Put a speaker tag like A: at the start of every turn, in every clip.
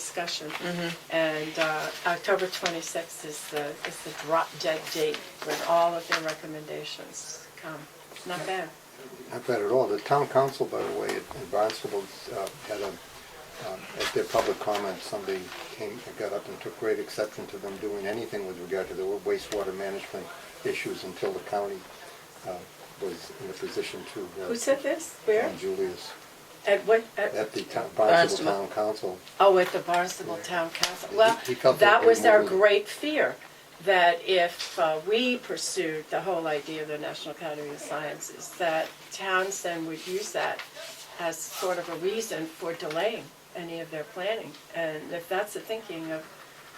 A: discussion. And uh, October 26th is the, is the drop dead date when all of their recommendations come. Not bad.
B: Not bad at all. The town council, by the way, at Barnstable, uh, had a, um, at their public comment, somebody came, got up and took great exception to them doing anything with regard to the wastewater management issues until the county uh, was in a position to. uh,
A: Who said this? Where?
B: John Julius,
A: At what? at-
B: at the town-
C: Barnstable.
B: Barnstable Town Council.
A: Oh, at the Barnstable Town Council.
B: He-
A: Well,
B: he felt that
A: that
B: they
A: was our
B: moved.
A: great fear, that if uh, we pursued the whole idea of the National Academy of Sciences, that Townsend would use that as sort of a reason for delaying any of their planning. And if that's the thinking of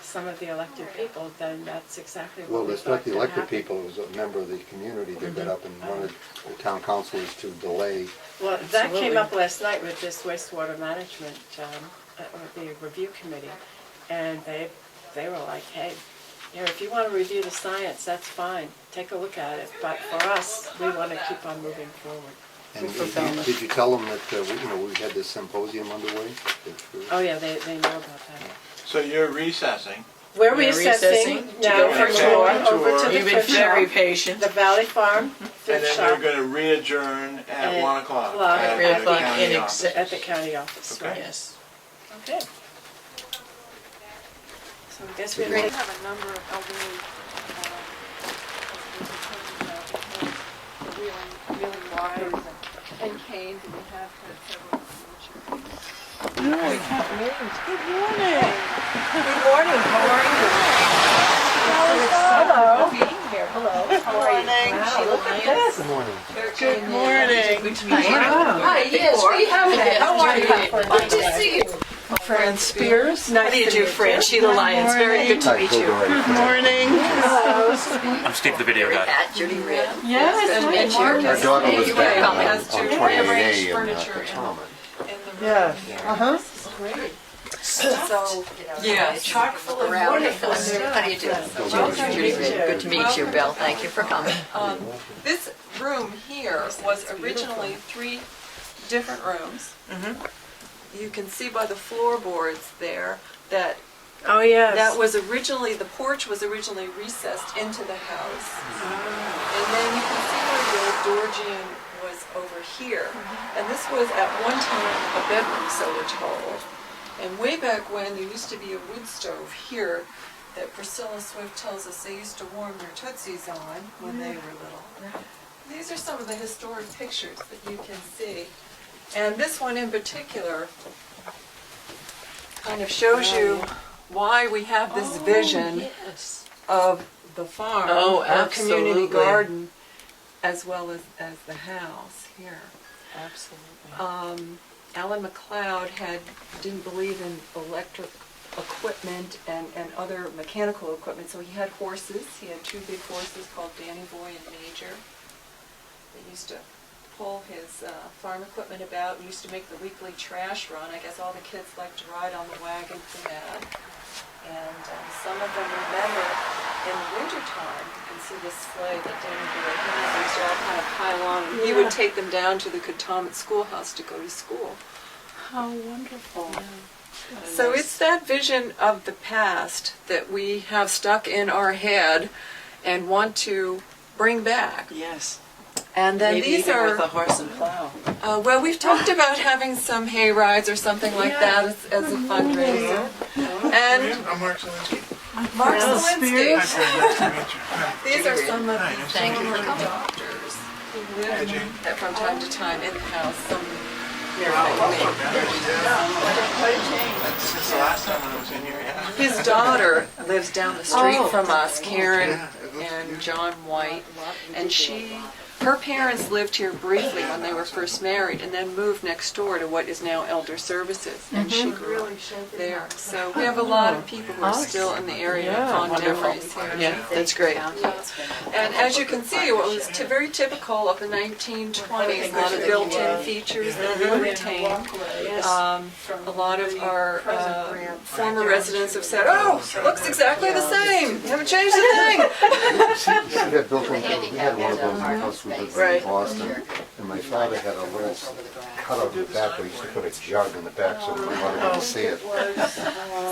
A: some of the elected people, then that's exactly what
B: Well,
A: we
B: it's not
A: thought
B: the
A: could
B: elected
A: happen.
B: people, it was a member of the community that
A: Mm-hmm.
B: got up and wanted the town councilors to delay.
A: Well, that
C: Absolutely.
A: came up last night with this wastewater management, um, uh, or the review committee, and they, they were like, hey, you know, if you wanna review the science, that's fine, take a look at it, but for us, we wanna keep on moving forward.
B: And
C: With
B: did you-
C: fulfillment.
B: did you tell them that, uh, we- you know, we had this symposium underway? that, uh,
A: Oh, yeah, they, they know about that.
D: So you're recessing.
A: We're
C: We're
A: recessing
C: recessing to
A: now
C: go
A: from
D: on
A: Gore
D: tour.
A: over to the
C: You've been
A: thrift
C: very Mm-hmm.
A: shop,
C: patient.
A: the Valley Farm
D: And
A: thrift
D: then
A: shop
D: you're gonna re-adjourn
A: At
D: at one o'clock.
A: o'clock.
D: at the
C: Three o'clock
D: county
C: in
D: office.
C: exec-
A: at the county office,
D: Okay.
A: right?
C: Yes.
A: Okay. So I guess we
E: We
A: have
E: have a number of elderly,
F: uh,
E: um, reeling, reeling wires and and canes, and we have had several. in the wheelchair.
B: Good morning.
C: Good morning. Good to meet you.
G: Hi, yes, we have it. How are you? Good to see you.
C: Fran Spears. How
A: Nice
C: do you
A: to
C: do,
A: meet
C: Fran? Sheila Lyons, very good to
B: Hi,
C: meet
B: go
C: you.
B: right ahead.
H: I'm Steve the Video Guy.
G: Pat, Judy Red.
C: Yes,
G: hi, Mark.
B: Our daughter was
G: Anyway,
B: back on,
G: has
B: on
G: to rearrange
B: 28A in uh,
G: furniture and-
B: Potomac.
G: So,
C: Yeah,
G: chock full of wonderful
A: stuff.
G: How do you do? Judy Red, good to meet you, Bill. Thank you for coming.
F: Um, This room here was originally three different rooms. You can see by the floorboards there that
A: Oh, yes.
F: that was originally, the porch was originally recessed into the house. And then you can see where the old Georgian was over here. And this was at one time a bedroom, so we're told. And way back when, there used to be a wood stove here that Priscilla Swift tells us they used to warm their tootsies on when they were little. These are some of the historic pictures that you can see. And this one in particular kind of shows you why we have this vision of the farm,
C: Oh,
F: our community
C: absolutely.
F: garden, as well as, as the house here.
C: Absolutely.
F: Um, Alan McLeod had, didn't believe in electric equipment and, and other mechanical equipment, so he had horses. He had two big horses called Danny Boy and Major. They used to pull his uh, farm equipment about, We used to make the weekly trash run. I guess all the kids liked to ride on the wagons and that. And um, some of them remember in the wintertime, you can see this sleigh that Danny Boy had, they used to all kind of pile on. and He would take them down to the Katomet Schoolhouse to go to school.
A: How wonderful.
F: So it's that vision of the past that we have stuck in our head and want to bring back.
C: Yes.
F: And then
C: Maybe
F: these
C: even
F: are
C: with a horse and plow.
F: uh, well, we've talked about having some hay rides or something like that as, as a
C: Mm-hmm.
F: fundraiser. And
D: I'm Mark Zelinski.
F: Mark Zelinski,
D: Nice to meet you. Hi,
F: these are some of
D: Hi,
F: the
D: nice to
G: Thank you for coming.
F: doctors who
D: meet you. Hi,
F: live
D: Jane.
F: that from time to time in the house. Some
D: Welcome, man. That's- Since the last time when I was in here, yeah.
F: His daughter lives down the street
C: Oh.
F: from us, Karen
D: Yeah, it looks
F: and John White, and she, her parents lived here briefly when they were first married, and then moved next door to what is now Elder Services, and she
C: Mm-hmm.
F: grew up there. So we have
C: Oh.
F: a lot of people who are still in the area of Con Jeffries here.
C: Yeah, that's great.
F: And as you can see, what was t- very typical of the 1920s, a lot of built-in features that we retained. Um, A lot of our uh, former residents have said, oh, looks exactly the same, haven't changed a thing.
B: We had built one, we had one of those in the house we lived in in
C: Right.
B: Boston, and my father had a little cutout in the back where he used to put a jug in the back so nobody could see it.